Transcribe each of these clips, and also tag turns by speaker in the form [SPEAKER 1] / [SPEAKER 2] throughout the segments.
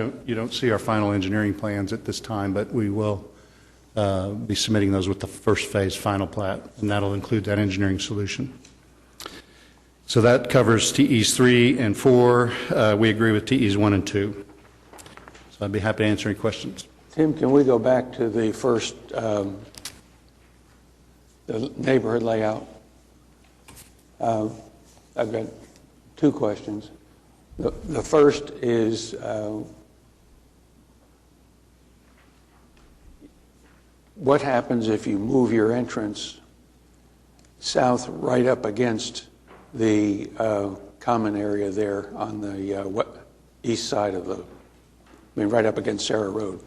[SPEAKER 1] don't- You don't see our final engineering plans at this time, but we will uh, be submitting those with the first phase final plat, and that'll include that engineering solution. So that covers TEs 3 and 4. Uh, We agree with TEs 1 and 2. So I'd be happy to answer any questions.
[SPEAKER 2] Tim, can we go back to the first, um, the neighborhood layout? Uh, I've got two questions. The the first is, uh, what happens if you move your entrance south right up against the uh, common area there on the uh, we- east side of the, I mean, right up against Sarah Road?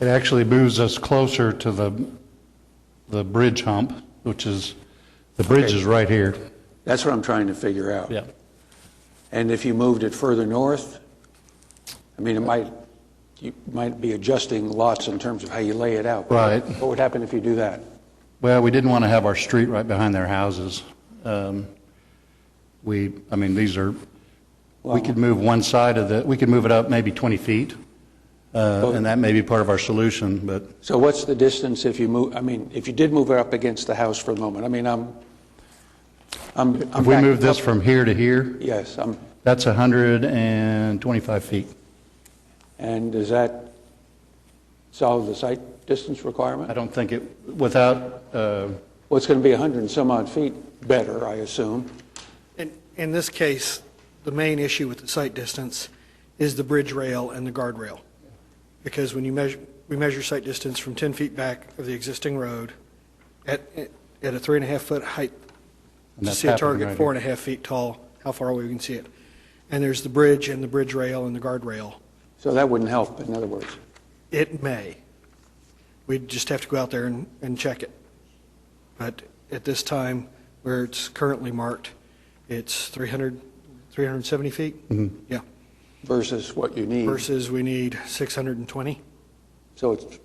[SPEAKER 1] It actually moves us closer to the, the bridge hump, which is, the bridge is right here.
[SPEAKER 2] That's what I'm trying to figure out.
[SPEAKER 1] Yeah.
[SPEAKER 2] And if you moved it further north, I mean, it might, you might be adjusting lots in terms of how you lay it out.
[SPEAKER 1] Right.
[SPEAKER 2] What would happen if you do that?
[SPEAKER 1] Well, we didn't want to have our street right behind their houses. Um, We, I mean, these are, we could move one side of the, we could move it up maybe 20 feet, uh, and that may be part of our solution, but
[SPEAKER 2] So what's the distance if you move, I mean, if you did move it up against the house for a moment? I mean, I'm, I'm.
[SPEAKER 1] if we move this from here to here,
[SPEAKER 2] Yes, I'm,
[SPEAKER 1] that's 125 feet.
[SPEAKER 2] and does that solve the site distance requirement?
[SPEAKER 1] I don't think it, without, uh,
[SPEAKER 2] Well, it's going to be 100 and some odd feet better, I assume.
[SPEAKER 3] In, in this case, the main issue with the site distance is the bridge rail and the guardrail. Because when you measure, we measure site distance from 10 feet back of the existing road at, at a three and a half foot height
[SPEAKER 1] And
[SPEAKER 3] to
[SPEAKER 1] that's
[SPEAKER 3] see a
[SPEAKER 1] happening right
[SPEAKER 3] target four and a half feet tall, how far away we can see it. And there's the bridge and the bridge rail and the guardrail.
[SPEAKER 2] So that wouldn't help, in other words.
[SPEAKER 3] It may. We'd just have to go out there and, and check it. But at this time, where it's currently marked, it's 300, 370 feet? Yeah,
[SPEAKER 2] versus what you need.
[SPEAKER 3] versus we need 620.
[SPEAKER 2] So it's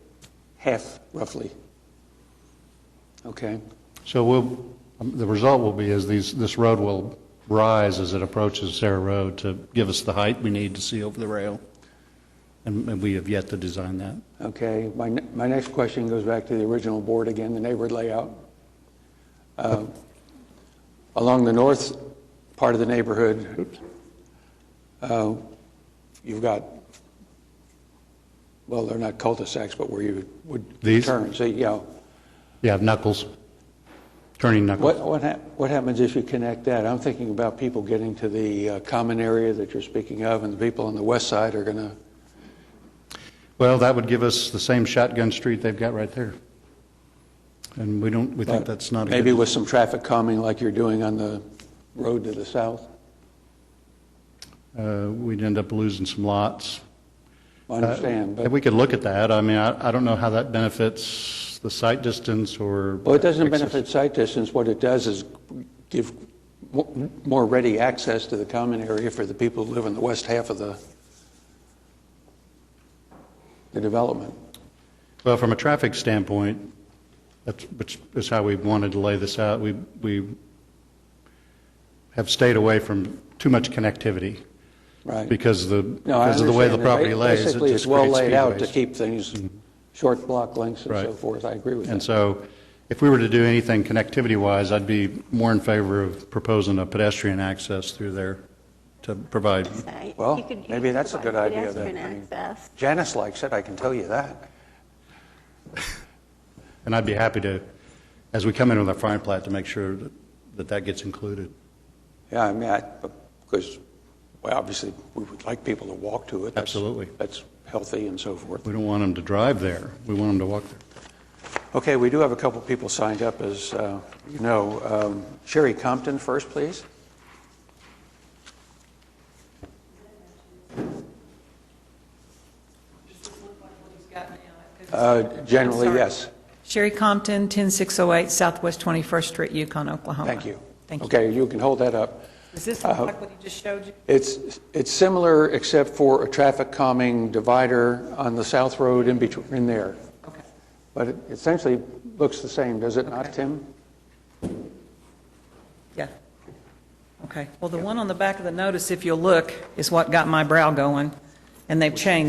[SPEAKER 2] half, roughly. Okay.
[SPEAKER 1] so we'll, um, the result will be is these, this road will rise as it approaches Sarah Road to give us the height we need to see over the rail, and and we have yet to design that.
[SPEAKER 2] Okay, my, ne- my next question goes back to the original board again, the neighborhood layout. Uh, Along the north part of the neighborhood, uh, you've got, well, they're not cul-de-sacs, but where you would
[SPEAKER 1] These?
[SPEAKER 2] turn, so, you know.
[SPEAKER 1] Yeah, knuckles, turning
[SPEAKER 2] What,
[SPEAKER 1] knuckles.
[SPEAKER 2] what hap, what happens if you connect that? I'm thinking about people getting to the uh, common area that you're speaking of, and the people on the west side are gonna,
[SPEAKER 1] Well, that would give us the same shotgun street they've got right there. And we don't, we think that's not a
[SPEAKER 2] maybe
[SPEAKER 1] good...
[SPEAKER 2] with some traffic calming like you're doing on the road to the south?
[SPEAKER 1] uh, We'd end up losing some lots.
[SPEAKER 2] I understand,
[SPEAKER 1] And
[SPEAKER 2] but,
[SPEAKER 1] Uh, we could look at that. I mean, I I don't know how that benefits the site distance or...
[SPEAKER 2] well, it doesn't benefit sight distance. What it does is give mo- more ready access to the common area for the people who live in the west half of the, the development.
[SPEAKER 1] Well, from a traffic standpoint, that's, which is how we wanted to lay this out. We, we have stayed away from too much connectivity
[SPEAKER 2] Right.
[SPEAKER 1] because the,
[SPEAKER 2] No, I
[SPEAKER 1] because of the way the
[SPEAKER 2] understand.
[SPEAKER 1] property
[SPEAKER 2] Ba-
[SPEAKER 1] lays. it
[SPEAKER 2] Basically,
[SPEAKER 1] just
[SPEAKER 2] it's well
[SPEAKER 1] creates
[SPEAKER 2] laid out to
[SPEAKER 1] speedways.
[SPEAKER 2] keep things short block lengths and so
[SPEAKER 1] Right.
[SPEAKER 2] forth. I agree with
[SPEAKER 1] And
[SPEAKER 2] that.
[SPEAKER 1] so if we were to do anything connectivity-wise, I'd be more in favor of proposing a pedestrian access through there to provide.
[SPEAKER 4] I-
[SPEAKER 2] Well,
[SPEAKER 4] you could- you
[SPEAKER 2] maybe
[SPEAKER 4] could
[SPEAKER 2] that's a good
[SPEAKER 4] provide
[SPEAKER 2] idea then. I mean-
[SPEAKER 4] Pedestrian access.
[SPEAKER 2] Janice likes it, I can tell you that.
[SPEAKER 1] And I'd be happy to, as we come in with our fire plat, to make sure that- that that gets included.
[SPEAKER 2] Yeah, I mean, I, because, well, obviously, we would like people to walk to it. That's-
[SPEAKER 1] Absolutely.
[SPEAKER 2] That's healthy and so forth.
[SPEAKER 1] We don't want them to drive there. We want them to walk there.
[SPEAKER 2] Okay, we do have a couple people signed up, as uh, you know. Um, Sherry Compton first, please. Uh, Generally,
[SPEAKER 5] Sorry.
[SPEAKER 2] yes.
[SPEAKER 5] Sherry Compton, 10608 Southwest 21st Street, Yukon, Oklahoma.
[SPEAKER 2] Thank you.
[SPEAKER 5] Thank you.
[SPEAKER 2] Okay, Uh-huh. you can hold that up.
[SPEAKER 5] Does this look like what he just showed you?
[SPEAKER 2] It's, it's similar except for a traffic calming divider on the South Road in between, in there.
[SPEAKER 5] Okay.
[SPEAKER 2] But it essentially looks the same, does it not, Tim?
[SPEAKER 5] Yeah. Okay. Well, the one on the back of the notice, if you'll look, is what got my brow going. And they've changed